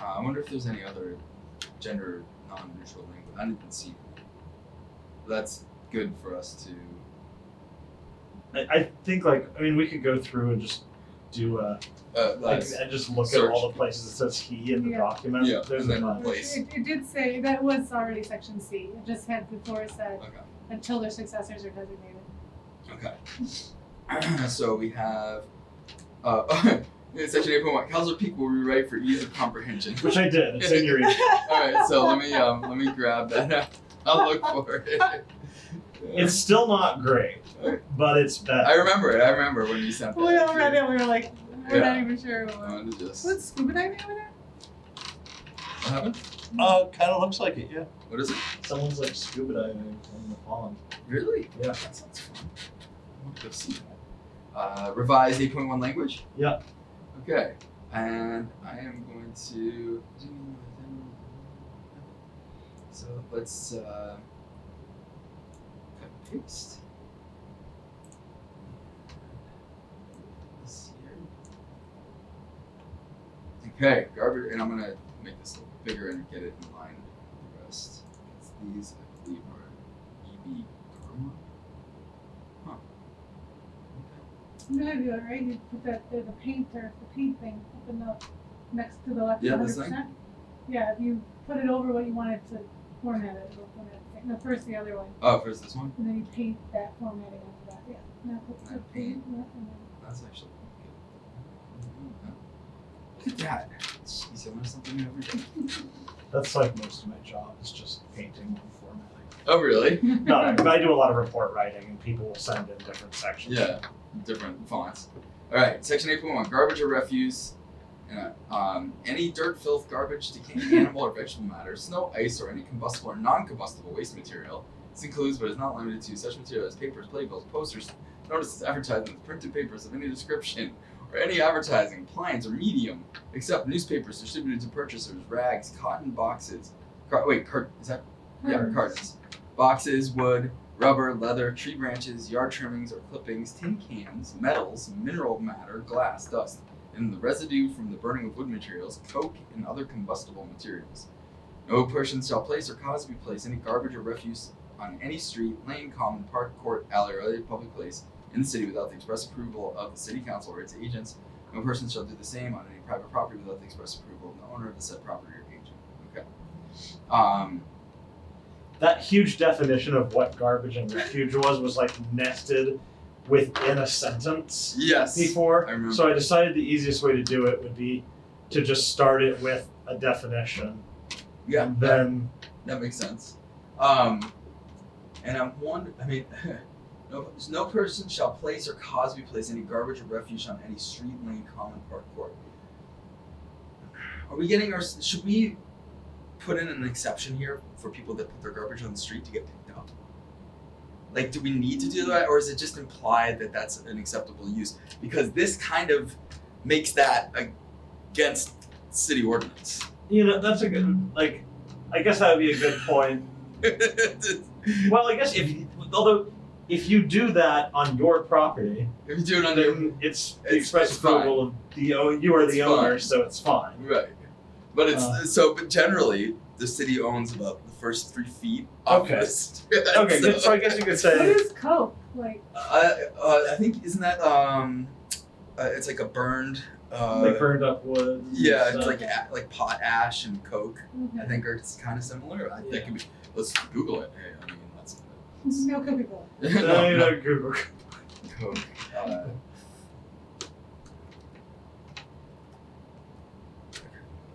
Uh, I wonder if there's any other gender non-neutral language. I didn't even see. That's good for us to. I, I think like I mean we could go through and just do a Uh, like that's- and just look at all the places it says he in the Yeah. document. Yeah, There's and a then- bunch. Place. It, it did say, that was already section C, it just had before it said, Okay. until their successors are designated. Okay. so we have. Uh, in section eight point one, Council Peak will rewrite for ease of comprehension. Which I did. It's in your email. All right, so let me um, let me grab that. I'll look for it. It's still not great, but it's better. I remember it. I remember when you sent that. We all read it, we were like, we're not even sure I what, wanted to just. What what's scuba diving over there? happened? Uh, kind of looks like it, yeah. What is it? Someone's like scuba diving in the pond. Really? Yeah. That sounds fun. I want to go see that. Uh, revised 8.1 language? Yeah. Okay. And I am going to. So let's uh, cut and paste. This here. Okay, garbage, and I'm gonna make this a little bigger and get it in line with the rest. 'Cause These, I believe, are E EB Burma. Huh. I'm gonna do it right, you put that, the, the painter, the paint thing up in the, next to the left Yeah, hundred this percent. Yeah, if you put it over what you wanted to format it, it'll format it, no, first the other one, Oh, first this one? and then you paint that formatting after that, yeah, not the, the That paint, paint. no, and then. That's actually pretty good. Look at that. Jeez, I learn something new every day. That's like most of my job is just painting and formatting. Oh, really? No, I- but I do a lot of report writing, and people will send in different sections. Yeah, different fonts. All right, section 8.1 garbage or refuse. Uh, um, any dirt, filth, garbage, decaying animal or vegetable matter, snow, ice, or any combustible or non combustible waste material. This includes, but is not limited to, such material as papers, playbills, posters, notices, advertisements, printed papers of any description, or any advertising, appliance, or medium, except newspapers distributed to purchasers, rags, cotton boxes. Car- wait, cart- is that? Yeah, Cartons. cartons. Boxes, wood, rubber, leather, tree branches, yard trimmings or clippings, tin cans, metals, mineral matter, glass, dust, and the residue from the burning of wood materials, coke, and other combustible materials. No person shall place or cause to be placed any garbage or refuse on any street, lane, common, park, court, alley, or other public place in the city without the express approval of the city council or its agents. No person shall do the same on any private property without the express approval of the owner of the said property or agent. Okay. Um, That huge definition of what garbage and refuge was was like nested within a sentence yes. before. I remember. So I decided the easiest way to do it would be to just start it with a definition, yeah. and that- then That makes sense. Um, and I'm wondering, I mean, no, no person shall place or cause to be placed any garbage or refuse on any street, lane, common, park, court. Are we getting our, should we put in an exception here for people that put their garbage on the street to get picked up? Like, do we need to do that, or is it just implied that that's an acceptable use? Because this kind of makes that against city ordinance. you know that's a good like. I guess that would be a good point. if Well, I guess if although if you do that on your property, you do it under then it's the It's- express it's fine. approval of the own. You are the It's owner, fine. so it's fine. Right. But it's Uh. so but generally the city owns about the first three feet of Okay. the street. Okay, so, good. so I guess you could What say is coke, like, I, uh, I think isn't that um uh, it's like a burned uh they burned up wood. and yeah, stuff. it's like a, like pot ash and coke. I okay, think are kind of similar. I Yeah. think it, let's Google it. Hey, I mean that's no coke people. No, no, you no, know, Google. coke. Uh,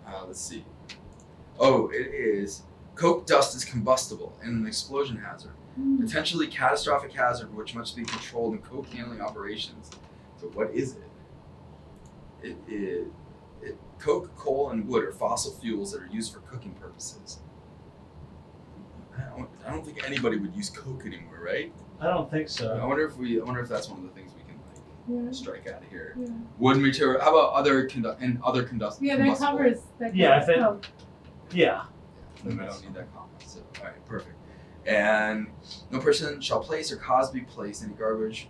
Uh, let's see. Oh, it is. Coke dust is combustible and an explosion hazard, Mm. potentially catastrophic hazard which must be controlled in coke handling operations. So what is it? It is it, coke, coal, and wood are fossil fuels that are used for cooking purposes. I don't, I don't think anybody would use coke anymore, right? I don't think I so. wonder if we. I wonder if that's one of the things we can like Yeah, strike out of here. yeah. Wood material. How about other condu- and other conduct? Yeah, that covers, that covers Yeah, if it- coke. Yeah. Then I don't need that comment. So, all right, perfect. And no person shall place or cause to be placed any garbage